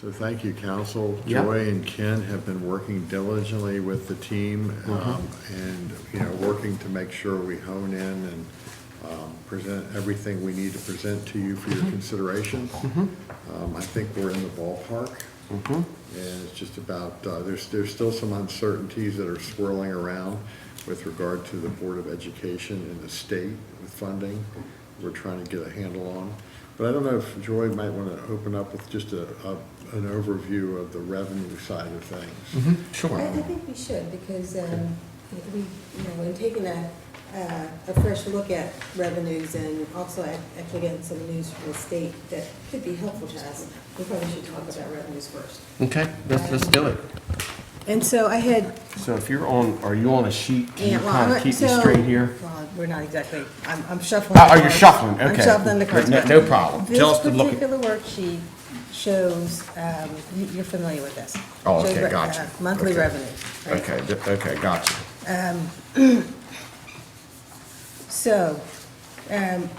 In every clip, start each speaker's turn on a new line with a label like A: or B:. A: So thank you, council.
B: Yeah.
A: Joy and Ken have been working diligently with the team um, and, you know, working to make sure we hone in and um, present everything we need to present to you for your consideration. Um, I think we're in the ballpark. And it's just about, uh, there's, there's still some uncertainties that are swirling around with regard to the Board of Education and the state with funding. We're trying to get a handle on. But I don't know if Joy might want to open up with just a, a- an overview of the revenue side of
B: Mm-hmm.
A: things.
B: Sure.
C: I, I think we should, because, um, we, you know, in taking a, uh, a fresh look at revenues and also ac- actually getting some news from the state that could be helpful to us, we probably should talk about revenues first.
B: Okay, let's, let's do it.
C: And so I had,
B: So if you're on, are you on a sheet? Can you
C: yeah, well, I'm
B: kind of
C: not-
B: keep me
C: so-
B: straight here?
C: Well, we're not exactly, I'm, I'm shuffling.
B: Oh,
C: the
B: oh, you're
C: cards.
B: shuffling, okay.
C: I'm shuffling the cards.
B: No-
C: but
B: no problem. Tell us to look at-
C: This particular worksheet shows, um, you, you're familiar with this.
B: Oh,
C: Shows
B: okay,
C: re-
B: gotcha.
C: uh, Monthly
B: Okay.
C: revenues, right?
B: Okay, th- okay, gotcha.
C: So, um,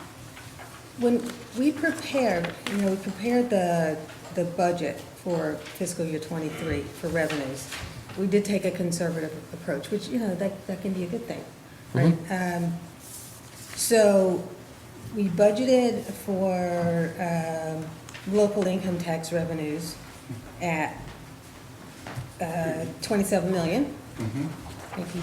C: when we prepared, you know, we prepared the, the budget for fiscal year twenty-three for revenues, we did take a conservative approach, which, you know, that, that can be a good thing, right? Um, So, we budgeted for, um, local income tax revenues at, uh, twenty-seven million. If you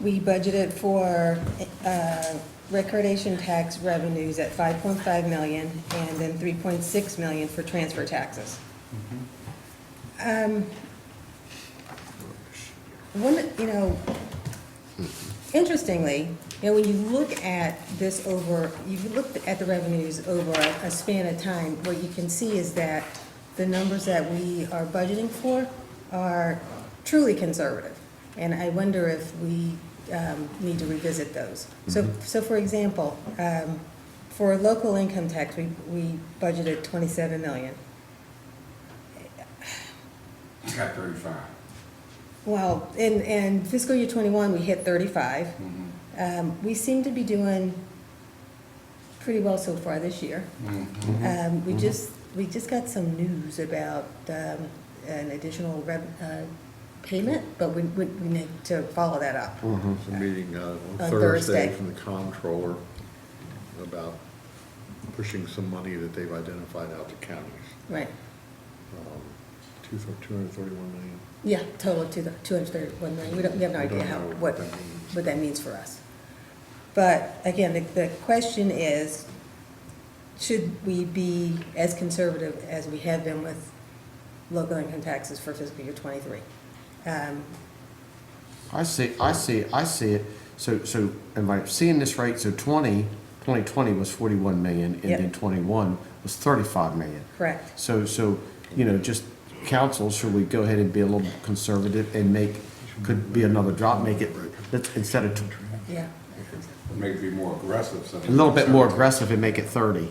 C: we budgeted for uh, recordation tax revenues at 5.5 million and then 3.6 million for transfer taxes. Um, One, you know, interestingly, you know, when you look at this over, you look at the revenues over a span of time, what you can see is that the numbers that we are budgeting for are truly conservative. And I wonder if we um, need to revisit those. So, so for example, um, for local income tax, we, we budgeted 27 million.
D: You got thirty-five.
C: Well, in, in fiscal year twenty-one, we hit thirty-five.
D: Mm-hmm.
C: Um, we seem to be doing pretty well so far this year. Um, we just, we just got some news about, um, an additional rev, uh, payment, but we, we we need to follow that up.
A: It's a meeting uh, on
C: On
A: Thursday
C: Thursday.
A: from the comptroller about pushing some money that they've identified out to counties. Um,
C: Right,
A: Two, two hundred thirty-one million.
C: yeah, total of two, two hundred thirty-one million, we don't, we have no
A: We don't
C: idea how,
A: know
C: what,
A: what that means.
C: what that means for us. But again, the, the question is, should we be as conservative as we have been with local income taxes for fiscal year twenty-three? Um,
B: I see, I see, I see it. So, so am I seeing this right? So 20, 2020 was 41 million and
C: Yep.
B: then 21 was 35 million.
C: correct,
B: So, so, you know, just council, should we go ahead and be a little conservative and make, could be another drop, make it, let's, instead of, tw-
C: yeah.
D: Maybe be more aggressive. so-
B: a little bit more aggressive and make it 30?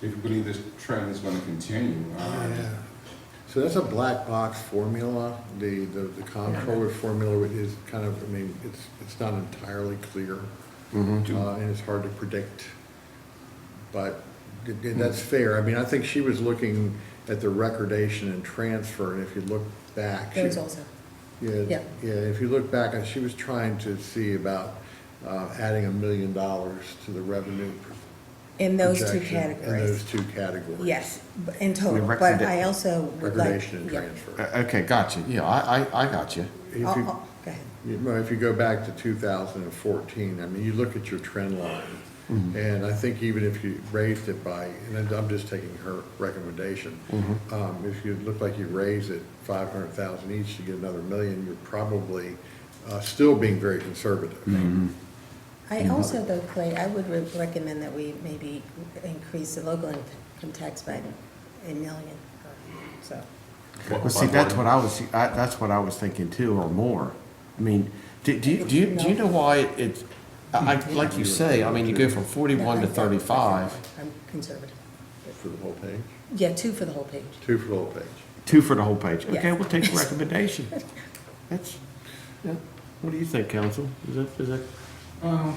D: If you believe this trend is gonna continue,
A: Oh,
D: uh,
A: So that's a black box formula, the, the, the comptroller formula is kind of, I mean, it's, it's not entirely clear. Uh, and it's hard to predict, but th- th- that's fair, I mean, I think she was looking at the recordation and transfer, and if you look back. she-
C: Those also,
A: Yeah,
C: Yeah.
A: yeah, if you look back, and she was trying to see about, uh, adding a million dollars to the revenue.
C: in those two
A: projection In those
C: categories,
A: two categories.
C: yes, b- in total,
B: We
C: but
B: recommend-
C: I also would like.
A: Recordation and
C: yeah.
A: transfer.
B: Uh, Okay, gotcha. Yeah, I, I, I got you.
A: If you-
C: I'll- I'll- go ahead.
A: You know, if you go back to 2014, I mean, you look at your trend line, and I think even if you raised it by, and I'm just taking her recommendation, um, if you look like you raise it 500,000 each to get another million, you're probably uh, still being very conservative.
C: I also, though, Clay, I would re- recommend that we maybe increase the local income tax by a million, so.
B: Well, see, that's what I was, I, that's what I was thinking too, or more. I mean, do, do you, do you, do you know why it's, I, I- like you say, I mean, you go from forty-one to thirty-five,
C: I'm conservative.
A: For the whole page?
C: Yeah, two for the whole page.
A: Two for the whole page.
B: two for the whole page. Okay,
C: Yeah.
B: we'll take the recommendation. That's, yeah. What do you think, council? Is that, is that?
D: um,